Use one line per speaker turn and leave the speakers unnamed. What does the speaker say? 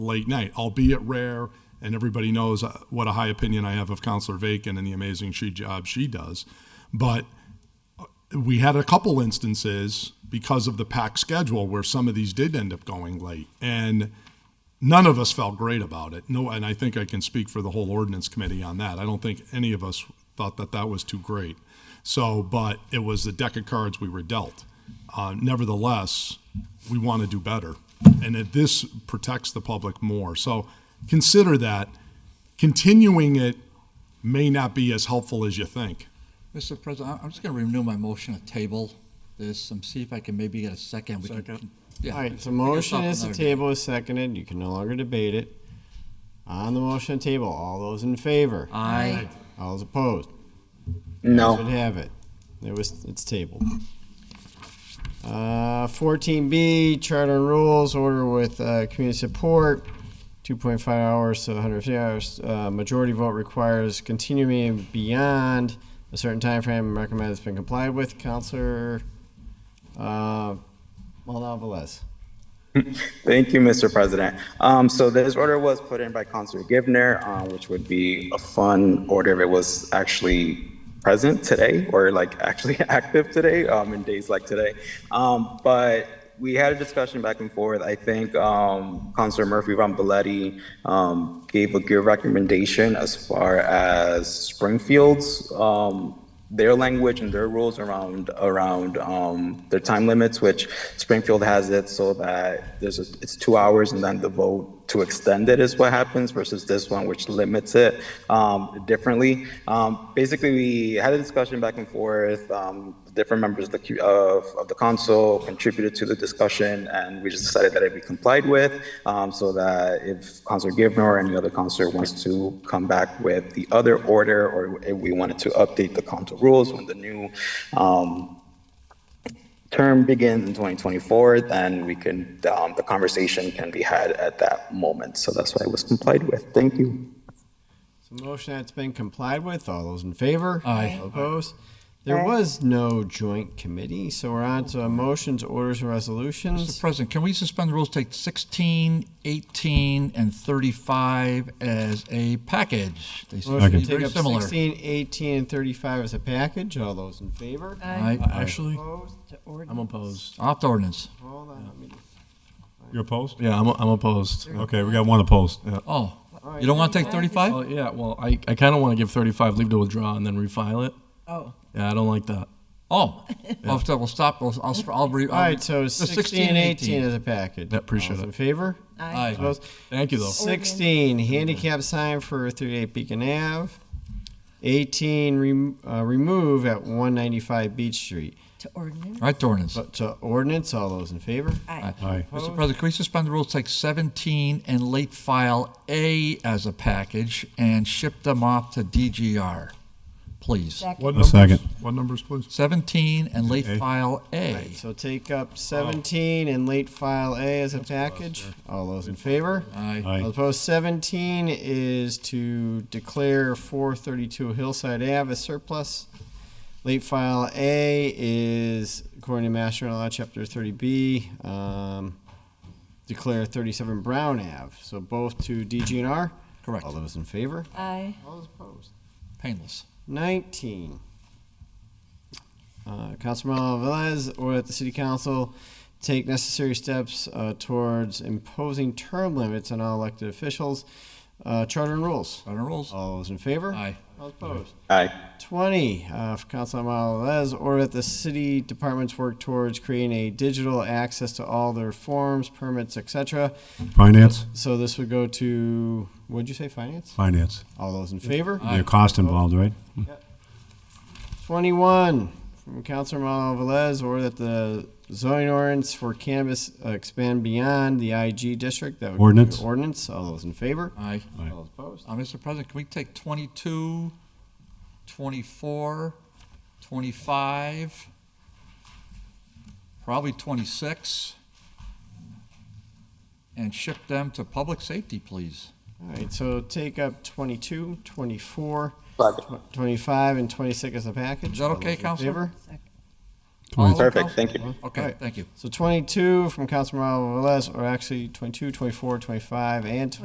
late night, albeit rare. And everybody knows uh, what a high opinion I have of Counselor Vacan and the amazing she job she does. But we had a couple instances because of the packed schedule where some of these did end up going late. And none of us felt great about it. No, and I think I can speak for the whole ordinance committee on that. I don't think any of us thought that that was too great. So, but it was the deck of cards we were dealt. Uh, nevertheless, we want to do better, and that this protects the public more. So, consider that continuing it may not be as helpful as you think.
Mr. President, I- I'm just going to renew my motion to table this and see if I can maybe get a second. Second.
All right, so motion is to table is seconded. You can no longer debate it. On the motion to table, all those in favor?
Uh, Aye.
All those opposed? Ayes would
No.
have it. It was, it's tabled. Uh, fourteen B, charter and rules, order with, uh, community support, two point five hours to hundred fifty hours. Uh, majority vote requires continuing beyond a certain time frame. recommend it's been complied with. Counselor, uh, Maldonado Velez.
Thank you, Mr. President. Um, so this order was put in by Councilor Givner, uh, which would be a fun order if it was actually present today or like actually active today, um, in days like today. Um, but we had a discussion back and forth. I think, um, Councilor Murphy Von Belletti, um, gave a good recommendation as far as Springfield's, um, their language and their rules around around um, their time limits, which Springfield has it so that there's a, it's two hours and then the vote to extend it is what happens versus this one, which limits it um, differently. Um, basically, we had a discussion back and forth. Um, different members of the, cu- of, of the council contributed to the discussion, and we just decided that it be complied with, um, so that if Councilor Givner or any other councilor wants to come back with the other order, or if we wanted to update the council rules when the new, um, term begins in 2024, then we can, um, the conversation can be had at that moment. So that's why it was complied with. Thank you.
So motion that's been complied with. All those in favor?
Aye.
All opposed? There was no joint committee, so we're on to motions, orders, and
Mr.
resolutions.
President, can we suspend the rules, take 16, 18, and 35 as a package? They seem to
Motion
be
to take
very
up
similar.
16, 18, and 35 as a package. All those in favor?
Aye.
Actually,
Opposed?
I'm opposed.
Opt ordinance.
Hold on. let me-
You're opposed?
Yeah, I'm, I'm opposed.
Okay, we got one opposed. Yeah.
Oh, you don't want to take 35?
Oh, yeah, well, I, I kind of want to give 35 leave to withdraw and then refile it.
Oh,
Yeah, I don't like that.
Oh, I'll have to- we'll stop, I'll, I'll, I'll re.
Um,
All right, so 16 and 18 as a package.
Yeah,
All
appreciate
those
it.
in favor?
Aye.
Opposed?
Thank you, though.
16, handicap sign for 38 Beacon Ave. 18, rem- uh, remove at 195 Beach Street.
to ordinance?
Right, to ordinance.
But to ordinance, all those in favor?
Aye.
Aye.
Mr. President, can we suspend the rules, take 17 and late file A as a package and ship them off to DGR, please?
Second.
What numbers?
second.
What numbers, please?
17 and late
A?
file A.
Alright, so take up 17 and late file A as a package. All those in favor?
Aye.
All
Aye.
opposed, 17 is to declare 432 Hillside Ave as surplus. Late file A is, according to Mass General Law, Chapter 30B, um, declare 37 Brown Ave. So both to DGNR.
Correct.
All those in favor?
Aye.
All those opposed.
Painless.
19. Uh, Councilman Velez, or that the city council take necessary steps uh, towards imposing term limits on all elected officials, uh, charter and rules.
Run the rules.
All those in favor?
Aye.
All opposed?
Aye.
20, uh, for Councilman Velez, or that the city departments work towards creating a digital access to all their forms, permits, etc.
Finance?
So this would go to, what'd you say, finance?
Finance.
All those in favor?
Your cost involved, right?
21 from Councilor Malavales, or that the zoning ordinance for cannabis uh, expand beyond the IG district. That would be
Ordinance.
Ordinance. All those in favor?
Aye.
Aye.
All opposed?
Uh, Mr. President, can we take 22, 24, 25, probably 26, and ship them to public safety, please?
All right, so take up 22, 24,
Second.
tw- 25, and 26 as a package.
Is that
All
okay,
those in
Counselor?
favor?
All of them, Council?
Perfect, thank you.
Okay, thank you.
So 22 from Councilman Velez, or actually 22, 24, 25, and